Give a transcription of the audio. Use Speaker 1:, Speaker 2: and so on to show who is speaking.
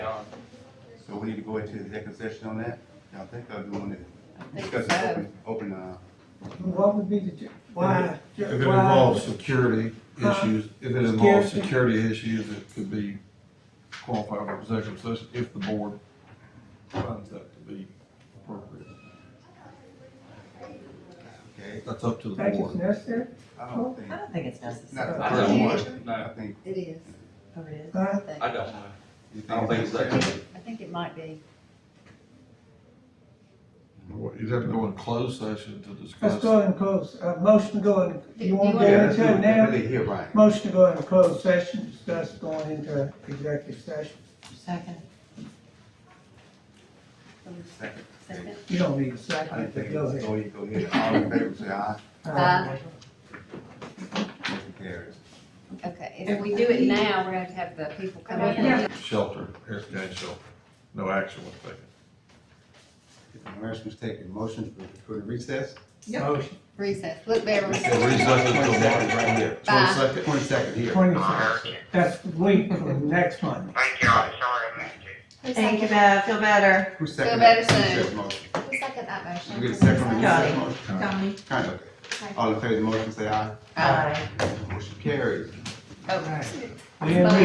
Speaker 1: So we need to go into executive session on that? Y'all think, or do you want to
Speaker 2: think
Speaker 1: discuss
Speaker 2: so.
Speaker 1: it open, open, uh,
Speaker 3: What would be the, ju- why? ju-
Speaker 4: If it
Speaker 3: why-
Speaker 4: involves security
Speaker 3: Huh?
Speaker 4: issues, if it involves
Speaker 3: Security?
Speaker 4: security issues, it could be qualified for executive session if the board finds that to be appropriate.
Speaker 1: okay?
Speaker 4: That's up to the
Speaker 3: Think it's
Speaker 4: board.
Speaker 3: necessary?
Speaker 1: I don't think,
Speaker 2: I don't think it's
Speaker 1: not
Speaker 2: necessary.
Speaker 1: the first one, I
Speaker 5: No,
Speaker 1: think,
Speaker 2: It is. Oh, it is?
Speaker 3: Huh?
Speaker 2: I think-
Speaker 5: I don't know.
Speaker 1: you
Speaker 5: I don't
Speaker 1: think
Speaker 5: think
Speaker 1: it's
Speaker 5: it's that.
Speaker 1: necessary?
Speaker 2: I think it might be.
Speaker 4: You'd have to go in closed session to discuss.
Speaker 3: Let's go in close, uh, motion to go in, you wanna go
Speaker 2: Yeah,
Speaker 1: Yeah, that's
Speaker 3: into it
Speaker 1: what we're
Speaker 3: now?
Speaker 1: really here, Brian.
Speaker 3: Motion to go into closed session, discuss going into executive session.
Speaker 2: Second.
Speaker 1: Second.
Speaker 2: Second.
Speaker 3: You don't
Speaker 1: I
Speaker 3: need a
Speaker 1: didn't think
Speaker 3: second, but
Speaker 1: it
Speaker 3: go
Speaker 1: was,
Speaker 3: ahead.
Speaker 1: go ahead, go ahead, all in favor, say aye,
Speaker 2: Uh,
Speaker 1: motion carries.
Speaker 2: Okay, if we do it now, we're gonna have the people come in.
Speaker 4: Shelter, Harris County shelter. No action was taken.
Speaker 1: If the motion was taken, motion for, for the recess?
Speaker 3: Motion.
Speaker 2: Recess. Look, Beverly.
Speaker 4: So recess until March
Speaker 1: Right here,
Speaker 2: Bye.
Speaker 4: twenty-second.
Speaker 1: twenty second here.
Speaker 3: Twenty
Speaker 6: Alright,
Speaker 3: seconds, that's the week from next Monday.
Speaker 6: Thank y'all, sorry I missed you.
Speaker 7: Thank you, Bev. Feel better.
Speaker 1: Who seconded?
Speaker 2: better
Speaker 1: that? Who
Speaker 2: soon.
Speaker 1: seconded the motion?
Speaker 2: Who seconded that motion?
Speaker 1: You get a second on the
Speaker 7: Johnny.
Speaker 1: motion?
Speaker 7: Tell me.
Speaker 1: Kind of, okay. All in favor of the motion, say aye.
Speaker 2: Aye.
Speaker 1: Motion carries.
Speaker 2: Oh.
Speaker 3: We in